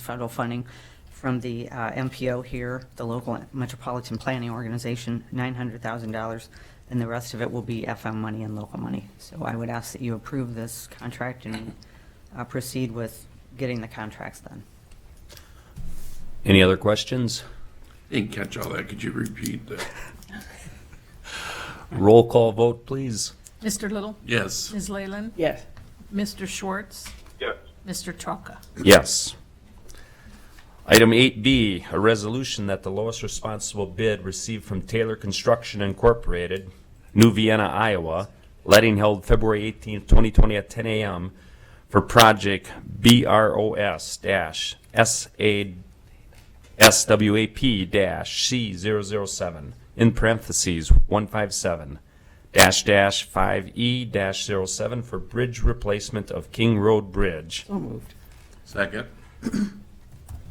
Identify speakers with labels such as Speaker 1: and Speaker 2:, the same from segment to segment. Speaker 1: federal funding from the uh, MPO here, the local metropolitan planning organization, $900,000, and the rest of it will be FM money and local money. So I would ask that you approve this contract and uh, proceed with getting the contracts done.
Speaker 2: Any other questions?
Speaker 3: Didn't catch all that. Could you repeat that?
Speaker 2: Roll call vote, please.
Speaker 4: Mr. Little?
Speaker 3: Yes.
Speaker 4: Ms. Leyland?
Speaker 5: Yes.
Speaker 4: Mr. Schwartz?
Speaker 6: yes,
Speaker 4: Mr. Trocca?
Speaker 2: Yes. Item 8B, a resolution that the lowest responsible bid received from Taylor Construction Incorporated, New Vienna, Iowa, letting held February 18, 2020 at 10 a.m. for project BROS-SA-SWAP-C007, in parentheses, 157, dash dash 5E dash 07 for bridge replacement of King Road Bridge.
Speaker 5: So moved.
Speaker 3: Second?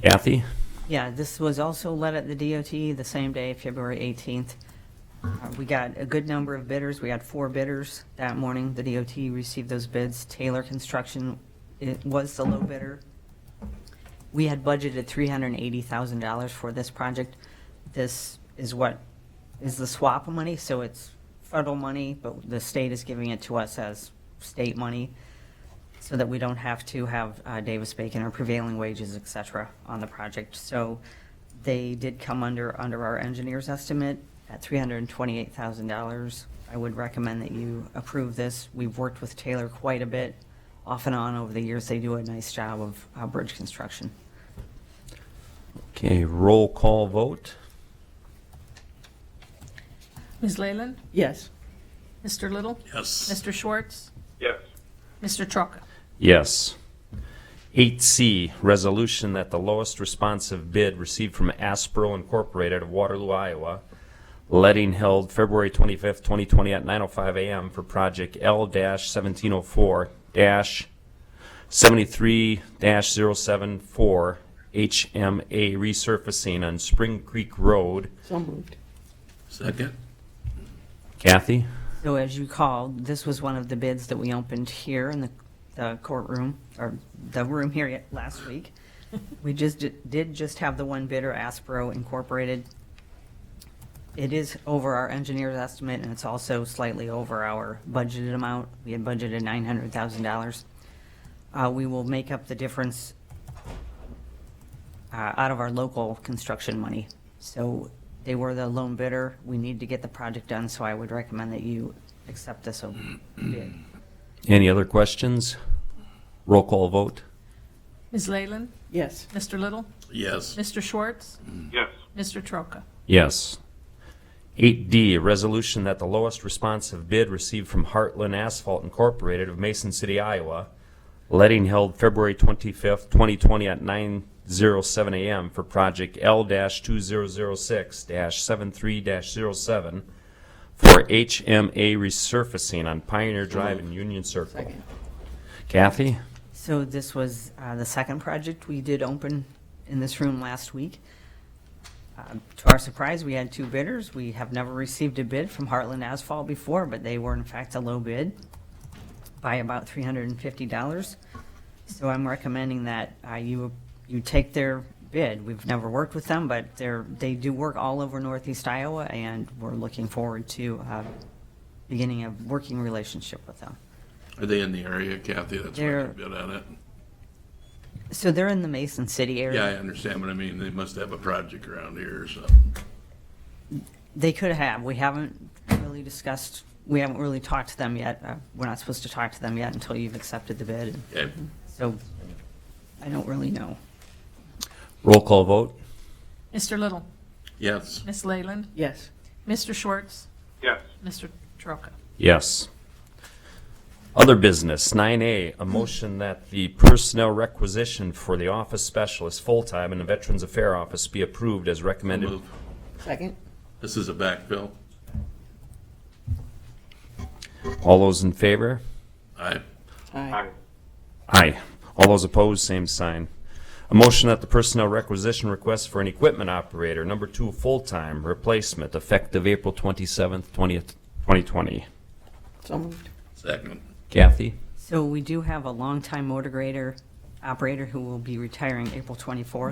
Speaker 2: Kathy?
Speaker 1: Yeah, this was also led at the DOT the same day, February 18th. Uh, We got a good number of bidders. We had four bidders that morning. The DOT received those bids. Taylor Construction it was the low bidder. We had budgeted $380,000 for this project. This is what, is the swap money, so it's federal money, but the state is giving it to us as state money so that we don't have to have uh, Davis-Bacon or prevailing wages, et cetera, on the project. So they did come under, under our engineer's estimate at $328,000. I would recommend that you approve this. We've worked with Taylor quite a bit, off and on over the years. They do a nice job of uh, bridge construction.
Speaker 2: Okay, roll call vote?
Speaker 4: Ms. Leyland?
Speaker 5: Yes.
Speaker 4: Mr. Little?
Speaker 3: Yes.
Speaker 4: Mr. Schwartz?
Speaker 6: yes,
Speaker 4: Mr. Trocca?
Speaker 2: Yes. 8C, resolution that the lowest responsive bid received from Aspro Incorporated of Waterloo, Iowa, letting held February 25th, 2020 at 9:05 a.m. for project L-1704-73-074 HMA resurfacing on Spring Creek Road.
Speaker 5: So moved.
Speaker 3: Second?
Speaker 2: Kathy?
Speaker 1: So as you recall, this was one of the bids that we opened here in the- the courtroom, or the room here yet- last week. We just, di- did just have the one bidder, Aspro Incorporated. It is over our engineer's estimate, and it's also slightly over our budgeted amount. We had budgeted $900,000. Uh, We will make up the difference uh, out of our local construction money. So they were the lone bidder. We need to get the project done, so I would recommend that you accept this o- bid.
Speaker 2: Any other questions? Roll call vote?
Speaker 4: Ms. Leyland?
Speaker 5: Yes.
Speaker 4: Mr. Little?
Speaker 3: Yes.
Speaker 4: Mr. Schwartz?
Speaker 6: yes,
Speaker 4: Mr. Trocca?
Speaker 2: Yes. 8D, a resolution that the lowest responsive bid received from Heartland Asphalt Incorporated of Mason City, Iowa, letting held February 25th, 2020 at 9:07 a.m. for project L-2006-73-07 for HMA resurfacing on Pioneer Drive in Union Circle.
Speaker 5: Second.
Speaker 2: Kathy?
Speaker 1: So this was uh, the second project we did open in this room last week. Um, To our surprise, we had two bidders. We have never received a bid from Heartland Asphalt before, but they were in fact a low bid by about $350. So I'm recommending that uh, you, you take their bid. We've never worked with them, but they're, they do work all over northeast Iowa, and we're looking forward to uh, beginning a working relationship with them.
Speaker 3: Are they in the area, Kathy? That's why I
Speaker 1: They're-
Speaker 3: bid on it.
Speaker 1: So they're in the Mason City area.
Speaker 3: Yeah, I understand what I mean. They must have a project around here or something.
Speaker 1: They could have. We haven't really discussed, we haven't really talked to them yet. Uh, We're not supposed to talk to them yet until you've accepted the bid.
Speaker 3: Okay.
Speaker 1: So I don't really know.
Speaker 2: Roll call vote?
Speaker 4: Mr. Little?
Speaker 3: Yes.
Speaker 4: Ms. Leyland?
Speaker 5: Yes.
Speaker 4: Mr. Schwartz?
Speaker 6: yes,
Speaker 4: Mr. Trocca?
Speaker 2: Yes. Other business, nine A, a motion that the personnel requisition for the office specialist full-time in the Veterans Affairs Office be approved as recommended.
Speaker 3: Move.
Speaker 5: Second.
Speaker 3: This is a backfill.
Speaker 2: All those in favor?
Speaker 3: Aye.
Speaker 5: Aye.
Speaker 6: aye,
Speaker 2: Aye. All those opposed, same sign. A motion that the personnel requisition request for an equipment operator, number two, full-time replacement, effective April twenty-seventh, twentieth, twenty twenty.
Speaker 5: So moved.
Speaker 3: Second.
Speaker 2: Kathy?
Speaker 1: So we do have a longtime motor grader operator who will be retiring April 24th.